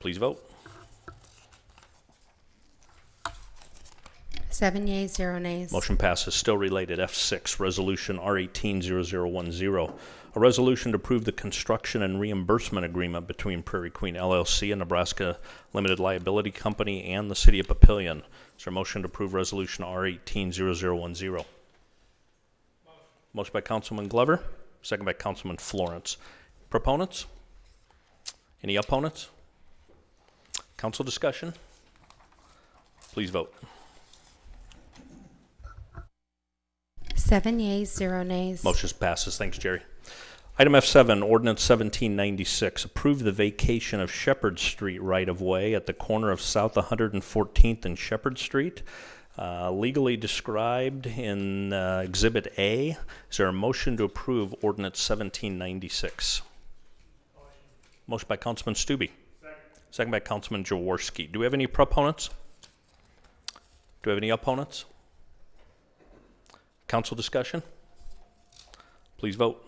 Please vote. Seven yeas, zero nays. Motion passes. Still related, F6, Resolution R180010, a resolution to approve the construction and reimbursement agreement between Prairie Queen LLC and Nebraska Limited Liability Company and the City of Papillion. Is there a motion to approve Resolution R180010? Motion by Councilman Glover, second by Councilman Florence. Proponents? Any opponents? Council discussion? Please vote. Seven yeas, zero nays. Motion passes. Thanks, Jerry. Item F7, Ordinance 1796, approve the vacation of Shepherd Street right-of-way at the corner of South 114th and Shepherd Street, uh, legally described in uh, Exhibit A. Is there a motion to approve Ordinance 1796? Motion by Councilman Stube. Second by Councilman Jaworski. Do we have any proponents? Do we have any opponents? Council discussion? Please vote.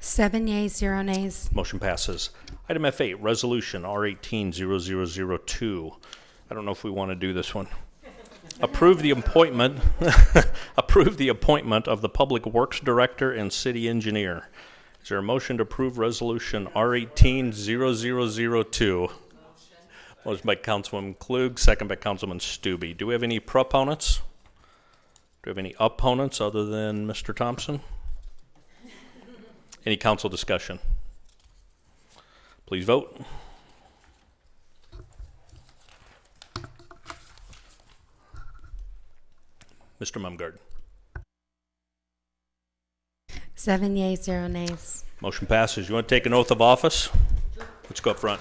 Seven yeas, zero nays. Motion passes. Item F8, Resolution R180002. I don't know if we want to do this one. Approve the appointment, approve the appointment of the Public Works Director and City Engineer. Is there a motion to approve Resolution R180002? Motion by Councilman Klug, second by Councilman Stube. Do we have any proponents? Do we have any opponents other than Mr. Thompson? Any council discussion? Please vote. Mr. Mumgarden. Seven yeas, zero nays. Motion passes. You want to take an oath of office? Let's go up front.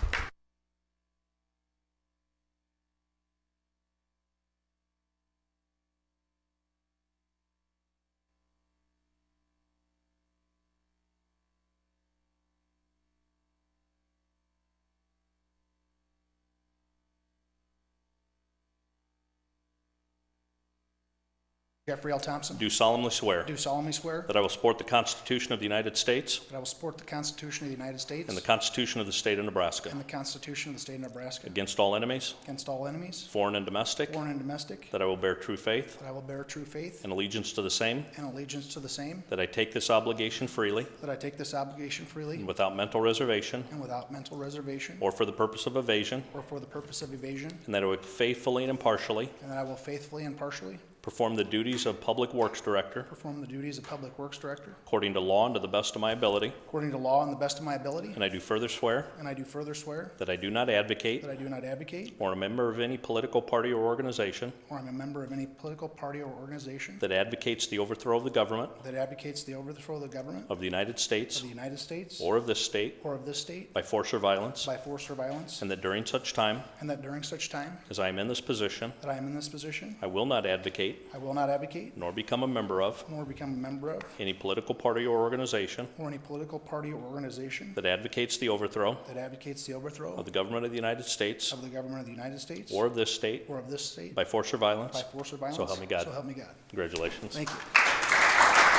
Jeffrey L. Thompson. Do solemnly swear Do solemnly swear that I will support the Constitution of the United States that I will support the Constitution of the United States and the Constitution of the State of and Nebraska the Constitution of the State of Nebraska against all enemies, against all enemies, foreign and domestic, foreign and domestic, that I will bear true faith that I will bear true faith and allegiance to the same, and allegiance to the same, that I take this obligation freely that I take this obligation freely and without mental reservation and without mental reservation or for the purpose of evasion, or for the purpose of evasion, and that I would faithfully and impartially and that I will faithfully and partially perform the duties of Public Works Director perform the duties of Public Works Director according to law and to the best of my ability. according to law and the best of my ability. And I do further swear And I do further swear that I do not advocate that I do not advocate or a member of any political party or organization or I'm a member of any political party or organization that advocates the overthrow of the government that advocates the overthrow of the government of the United of States the United States or of this state or of this state by force or violence, by force or violence, and that during such time and that during such time as I am in this position, that I am in this position, I will not advocate I will not advocate nor become a member of nor become a member of any political party or organization or any political party or organization that advocates the overthrow that advocates the overthrow of the government of the United States of the government of the United States or of this state or of this state by force or by violence. force or violence. help me God. So help me God. Congratulations. Thank you.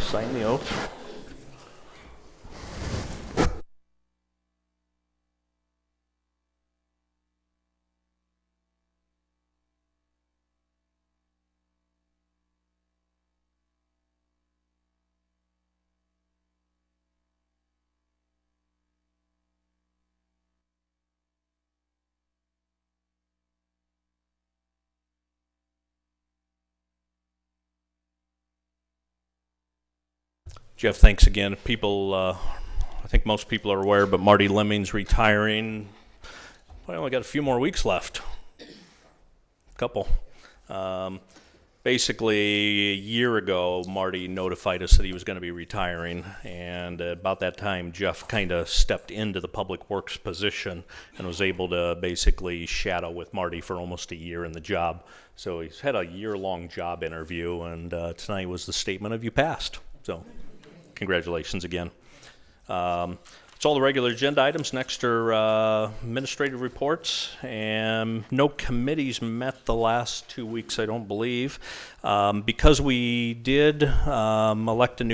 Sign the oath. Jeff, thanks again. People, uh, I think most people are aware, but Marty Lemming's retiring. I only got a few more weeks left. Couple. Um, basically, a year ago, Marty notified us that he was going to be retiring, and about that time, Jeff kind of stepped into the public works position and was able to basically shadow with Marty for almost a year in the job. So he's had a year-long job interview, and uh, tonight was the statement of you passed. So, congratulations again. Um, It's all the regular agenda items. Next are uh, administrative reports, and no committees met the last two weeks, I don't believe. Um, Because we did um, elect a new